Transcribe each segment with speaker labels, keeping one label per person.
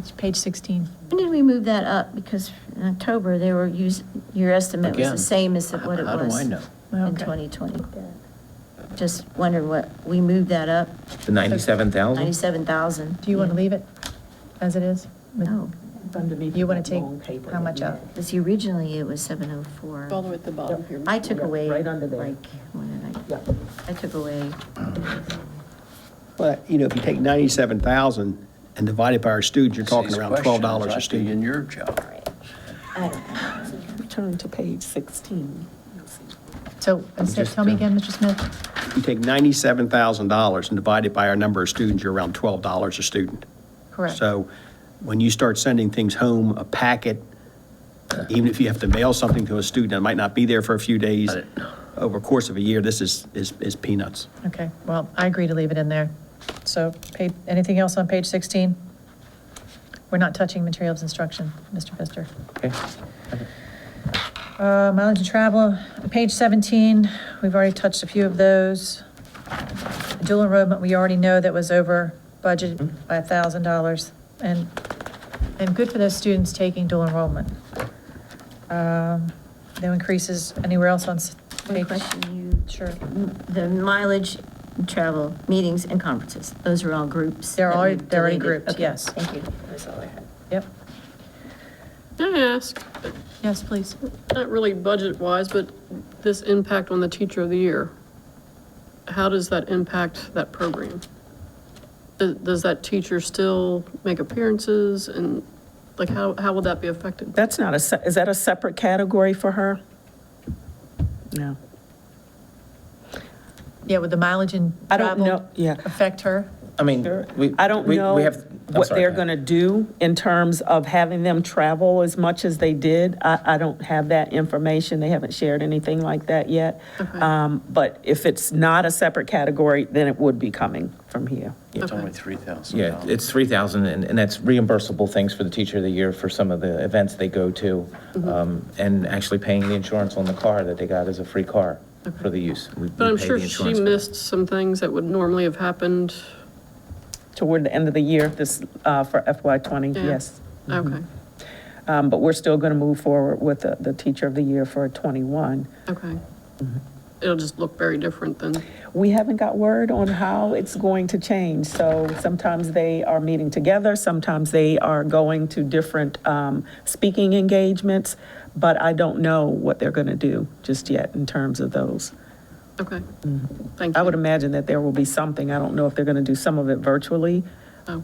Speaker 1: Page- Page 16.
Speaker 2: When did we move that up? Because in October, they were use, your estimate was
Speaker 3: Again,
Speaker 2: the same as what it was.
Speaker 3: how do I know?
Speaker 2: In
Speaker 1: Okay.
Speaker 2: 2020. Just wondering what, we moved that up,
Speaker 3: The 97,000?
Speaker 2: 97,000.
Speaker 1: Do you want to leave it as it is?
Speaker 2: No,
Speaker 1: You want to take how much uh, up?
Speaker 2: because originally it was 704.
Speaker 4: All the way at the bottom here.
Speaker 2: I took
Speaker 5: Yeah,
Speaker 2: away, like,
Speaker 5: right under there.
Speaker 2: what did
Speaker 5: Yeah.
Speaker 2: I, I took away,
Speaker 6: Well, you know, if you take 97,000 and divide it by our students, you're talking
Speaker 3: These
Speaker 6: around
Speaker 3: questions
Speaker 6: $12
Speaker 3: I'd
Speaker 6: a
Speaker 3: be
Speaker 6: student.
Speaker 3: In your job.
Speaker 2: I don't know.
Speaker 4: Turn to page 16. You'll see.
Speaker 1: So, instead-
Speaker 3: just,
Speaker 1: tell me
Speaker 3: uh,
Speaker 1: again, Mr. Smith,
Speaker 6: You take $97,000 and divide it by our number of students, you're around $12 a student.
Speaker 1: correct?
Speaker 6: So when you start sending things home, a packet, even if you have to mail something to a student that might not be there for a few days,
Speaker 3: Got it.
Speaker 6: over a course of a year, this is, is is peanuts.
Speaker 1: Okay, well, I agree to leave it in there. So, pa- anything else on page 16? We're not touching materials instruction, Mr. Pfister.
Speaker 3: Okay.
Speaker 1: Uh, Mileage and travel, page 17, we've already touched a few of those. Dual enrollment, we already know that was over budget by $1,000. And, and good for those students taking dual enrollment. Um, No increases anywhere else on s-
Speaker 2: One
Speaker 1: page?
Speaker 2: question, you,
Speaker 1: Sure.
Speaker 2: the mileage, travel, meetings, and conferences, those are all groups.
Speaker 1: They're
Speaker 2: that
Speaker 1: already-
Speaker 2: we've
Speaker 1: they're already
Speaker 2: deleted.
Speaker 1: grouped,
Speaker 2: Okay,
Speaker 1: yes.
Speaker 2: Thank you, that's all I had.
Speaker 1: Yep.
Speaker 4: Can I ask,
Speaker 1: Yes, please.
Speaker 4: not really budget-wise, but this impact on the teacher of the year, how does that impact that program? Does- Does that teacher still make appearances and, like, how, how would that be affected?
Speaker 7: That's not a, se- is that a separate category for her? No.
Speaker 1: Yeah, would the mileage and
Speaker 7: I don't
Speaker 1: travel
Speaker 7: know, yeah.
Speaker 1: affect her?
Speaker 3: I mean, we.
Speaker 7: I don't
Speaker 3: we- we
Speaker 7: know
Speaker 3: have- I'm
Speaker 7: what
Speaker 3: sorry,
Speaker 7: they're
Speaker 3: go
Speaker 7: going to
Speaker 3: ahead.
Speaker 7: do in terms of having them travel as much as they did. I, I don't have that information. They haven't shared anything like that yet. Um, But if it's not a separate category, then it would be coming from here.
Speaker 3: It's
Speaker 4: Okay.
Speaker 3: only 3,000. Yeah, it's 3,000, and, and that's reimbursable things for the teacher of the year for some of the events they go to,
Speaker 2: Mm-hmm.
Speaker 3: um, and actually paying the insurance on the car that they got as a free car for the use. We- we
Speaker 4: But I'm
Speaker 3: pay
Speaker 4: sure
Speaker 3: the
Speaker 4: she
Speaker 3: insurance for that.
Speaker 4: missed some things that would normally have happened.
Speaker 7: Toward the end of the year, this, uh, for FY '20,
Speaker 4: Yeah.
Speaker 7: yes.
Speaker 3: Mm-hmm.
Speaker 4: Okay,
Speaker 7: Um, But we're still going to move forward with the, the teacher of the year for '21.
Speaker 4: okay.
Speaker 3: Mm-hmm.
Speaker 4: It'll just look very different than,
Speaker 7: We haven't got word on how it's going to change. So sometimes they are meeting together, sometimes they are going to different um, speaking engagements, but I don't know what they're going to do just yet in terms of those.
Speaker 4: okay.
Speaker 3: Mm-hmm.
Speaker 4: Thank you.
Speaker 7: I would imagine that there will be something. I don't know if they're going to do some of it virtually,
Speaker 4: Oh,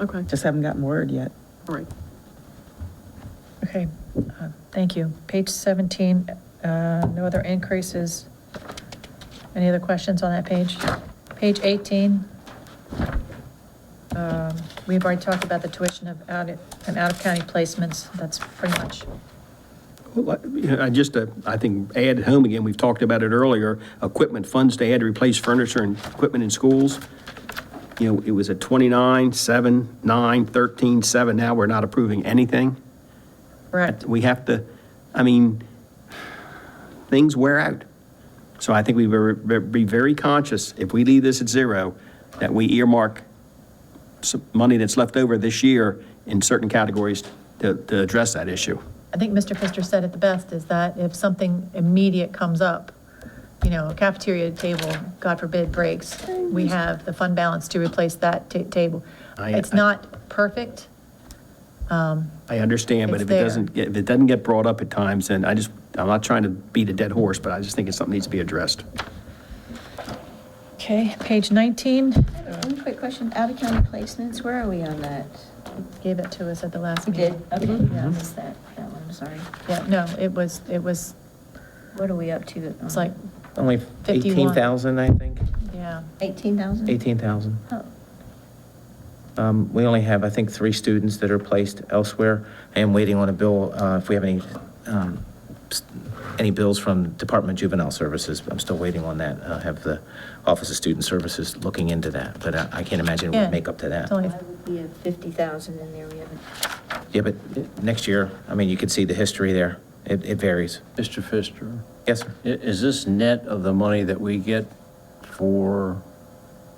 Speaker 4: okay,
Speaker 7: just haven't gotten word yet.
Speaker 4: all right.
Speaker 1: Okay, uh, thank you. Page 17, uh, no other increases. Any other questions on that page? Page 18. um, We've already talked about the tuition of out, and out-of-county placements, that's pretty much,
Speaker 6: Well, I- you know, I just, uh, I think, add home again, we've talked about it earlier, equipment funds to add to replace furniture and equipment in schools. You know, it was at 29, 7, 9, 13, 7. Now we're not approving anything.
Speaker 1: correct?
Speaker 6: We have to, I mean, things wear out. So I think we were- be very conscious, if we leave this at zero, that we earmark some money that's left over this year in certain categories to, to address that issue.
Speaker 1: I think Mr. Pfister said it the best, is that if something immediate comes up, you know, a cafeteria table, God forbid, breaks, we have the fund balance to replace that ta- table.
Speaker 6: I-
Speaker 1: It's
Speaker 6: I-
Speaker 1: not perfect,
Speaker 6: I understand, but
Speaker 1: It's
Speaker 6: if it
Speaker 1: there.
Speaker 6: doesn't, get- if it doesn't get brought up at times, then I just, I'm not trying to beat a dead horse, but I just think it's something that needs to be addressed.
Speaker 1: Okay, page 19,
Speaker 2: One quick question, out-of-county placements, where are we on that?
Speaker 1: gave it to us at the last
Speaker 2: You
Speaker 1: meeting.
Speaker 2: did, okay,
Speaker 1: Mm-hmm.
Speaker 2: yeah, I missed that, that one, I'm sorry.
Speaker 1: Yeah, no, it was, it was,
Speaker 2: What are we up to?
Speaker 1: it's like,
Speaker 3: Only
Speaker 1: 51.
Speaker 3: 18,000, I think,
Speaker 1: yeah,
Speaker 2: 18,000?
Speaker 3: 18,000.
Speaker 2: Oh,
Speaker 3: Um, We only have, I think, three students that are placed elsewhere. I am waiting on a bill, uh, if we have any, um, s- any bills from Department of Juvenile Services. I'm still waiting on that. I have the Office of Student Services looking into that, but I I can't imagine it
Speaker 1: Yeah.
Speaker 3: would make up to that.
Speaker 1: it's only,
Speaker 2: why would we have 50,000 in there, we haven't.
Speaker 3: Yeah, but uh, next year, I mean, you could see the history there. It it varies.
Speaker 8: Mr. Pfister,
Speaker 3: Yes, sir.
Speaker 8: i- is this net of the money that we get for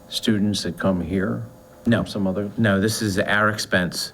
Speaker 8: students that come here?
Speaker 3: No.
Speaker 8: From Some other,
Speaker 3: No, this is our expense